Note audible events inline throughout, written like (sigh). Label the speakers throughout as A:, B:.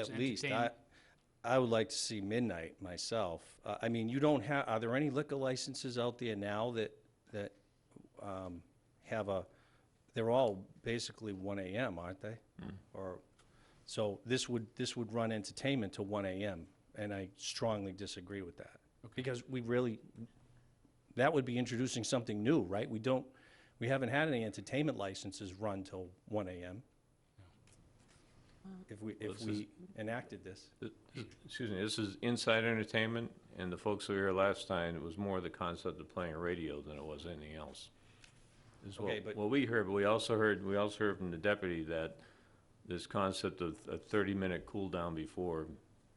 A: At least, I,
B: entertainment.
A: I would like to see midnight myself. Uh, I mean, you don't have, are there any liquor licenses out there now that, that, um, have a, they're all basically one AM, aren't they? Or, so this would, this would run entertainment to one AM, and I strongly disagree with that. Because we really, that would be introducing something new, right? We don't, we haven't had any entertainment licenses run till one AM. If we, if we enacted this.
C: Excuse me, this is inside entertainment, and the folks who were here last time, it was more the concept of playing radio than it was anything else. Is what,
A: Okay, but-
C: what we heard, but we also heard, we also heard from the deputy that this concept of a thirty-minute cool down before,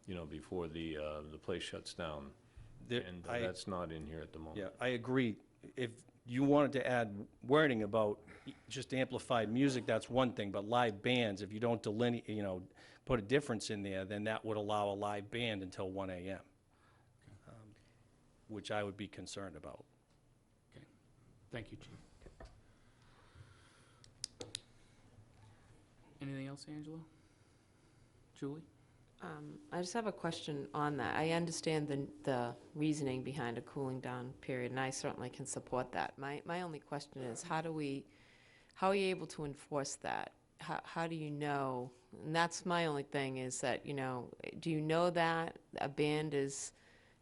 C: you know, before the, uh, the place shuts down.
A: There-
C: And
A: I-
C: that's not in here at the moment.
A: Yeah, I agree. If you wanted to add wording about just amplified music, that's one thing, but live bands, if you don't delineate, you know, put a difference in there, then that would allow a live band until one AM, um, which I would be concerned about.
B: Okay. Thank you, Chief. Anything else, Angela? Julie?
D: Um, I just have a question on that. I understand the, the reasoning behind a cooling down period, and I certainly can support that. My, my only question is, how do we, how are you able to enforce that? How, how do you know? And that's my only thing, is that, you know, do you know that a band is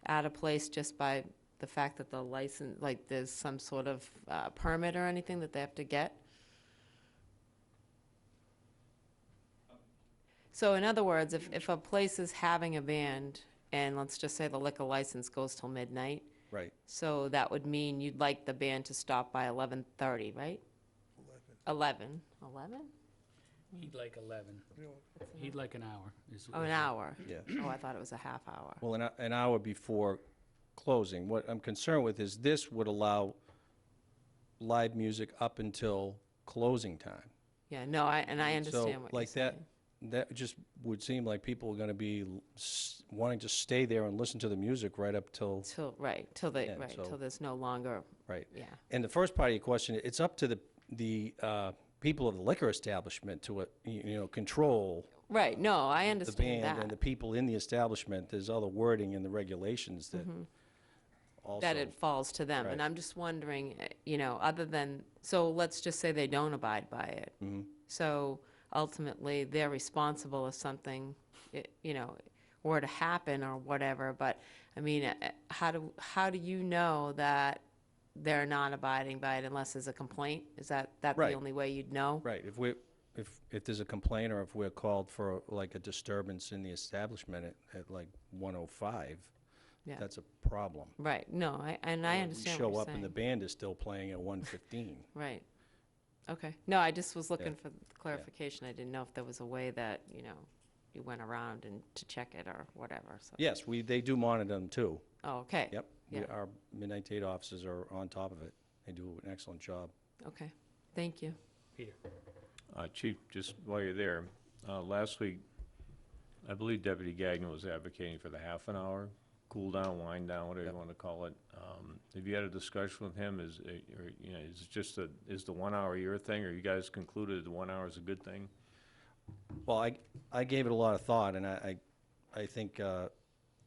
D: out of place just by the fact that the license, like, there's some sort of uh, permit or anything that they have to get? So in other words, if, if a place is having a band, and let's just say the liquor license goes till midnight,
A: Right.
D: so that would mean you'd like the band to stop by eleven thirty, right? Eleven. Eleven? Eleven?
B: He'd like 11. He'd like an hour. is-
D: Oh, an hour?
A: Yeah.
D: Oh, I thought it was a half hour.
A: Well, an, hou- an hour before closing. What I'm concerned with is this would allow live music up until closing time.
D: Yeah, no, I, and I understand what
A: So
D: you're
A: like
D: saying.
A: that, that just would seem like people are going to be l- s- wanting to stay there and listen to the music right up till,
D: Till, right, till they,
A: Yeah,
D: right,
A: so-
D: till there's no longer,
A: right.
D: yeah.
A: And the first part of your question, it's up to the, the uh, people of the liquor establishment to, uh, you you know, control
D: Right, no, I
A: the
D: understand
A: band and the
D: that,
A: people in the establishment. There's other wording in the regulations that
D: Mm-hmm. that
A: also,
D: it falls to them. And
A: Right.
D: I'm just wondering, eh, you know, other than, so let's just say they don't abide by it.
A: Mm-hmm.
D: So ultimately, they're responsible if something, i- you know, were to happen or whatever, but, I mean, eh, how do, how do you know that they're not abiding by it unless there's a complaint? Is that, that the
A: Right.
D: only way you'd know?
A: right, if we, if, if there's a complaint or if we're called for like a disturbance in the establishment at, at like 105,
D: Yeah.
A: that's a problem.
D: Right, no, I, and I
A: We
D: understand what
A: show
D: you're
A: up and the
D: saying.
A: band is still playing at 1:15.
D: Right. Okay, no, I just was looking for clarification. I didn't know if there was a way that, you know, you went around and to check it or whatever, so.
A: Yes, we, they do monitor them too.
D: Oh, okay.
A: Yep. We-
D: Yeah.
A: Our midnight date officers are on top of it. They do an excellent job.
D: Okay, thank you.
B: Peter?
C: Uh, Chief, just while you're there, uh, last week, I believe Deputy Gagnon was advocating for the half an hour, cool down, wind down, whatever you want to call it. Um, Have you had a discussion with him? Is, it- or, you know, is it just a, is the one hour your thing, or you guys concluded the one hour is a good thing?
A: Well, I, I gave it a lot of thought and I, I, I think, uh,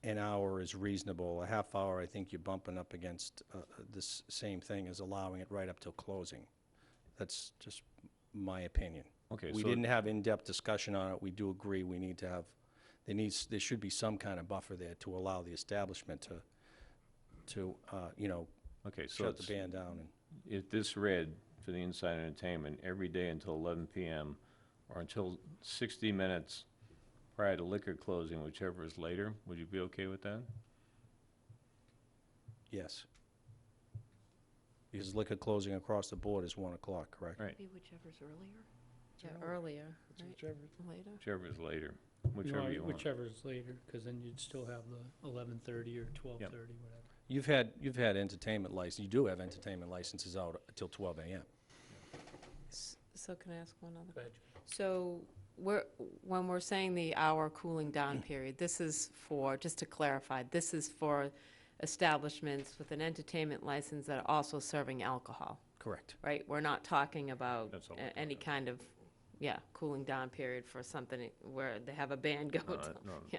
A: an hour is reasonable. A half hour, I think you're bumping up against, uh, this same thing as allowing it right up till closing. That's just my opinion.
C: Okay,
A: We
C: so-
A: didn't have in-depth discussion on it. We do agree we need to have, there needs, there should be some kind of buffer there to allow the establishment to, to, uh, you know,
C: Okay, so
A: shut the
C: it's-
A: band down and.
C: if this read for the inside entertainment, every day until eleven PM or until sixty minutes prior to liquor closing, whichever is later, would you be okay with that?
A: Yes. Because liquor closing across the board is 1 o'clock, correct?
C: Right.
E: Be whichever's earlier.
D: Yeah, earlier, right? Later?
C: Whichever is later,
F: You
C: whichever
F: want-
C: you want.
F: Whichever is later, because then you'd still have the eleven thirty or twelve thirty, whatever.
A: You've had, you've had entertainment license, you do have entertainment licenses out till 12 a.m.
D: S- So can I ask one other?
F: Go ahead.
D: So we're, when we're saying the hour cooling down period, this is for, just to clarify, this is for establishments with an entertainment license that are also serving alcohol,
A: Correct.
D: right? We're not talking about
C: That's all
D: a-
C: we're
D: any kind of yeah, cooling down period for something where they have a band go
C: No,
D: to. (laughs)
C: no,
D: Yeah.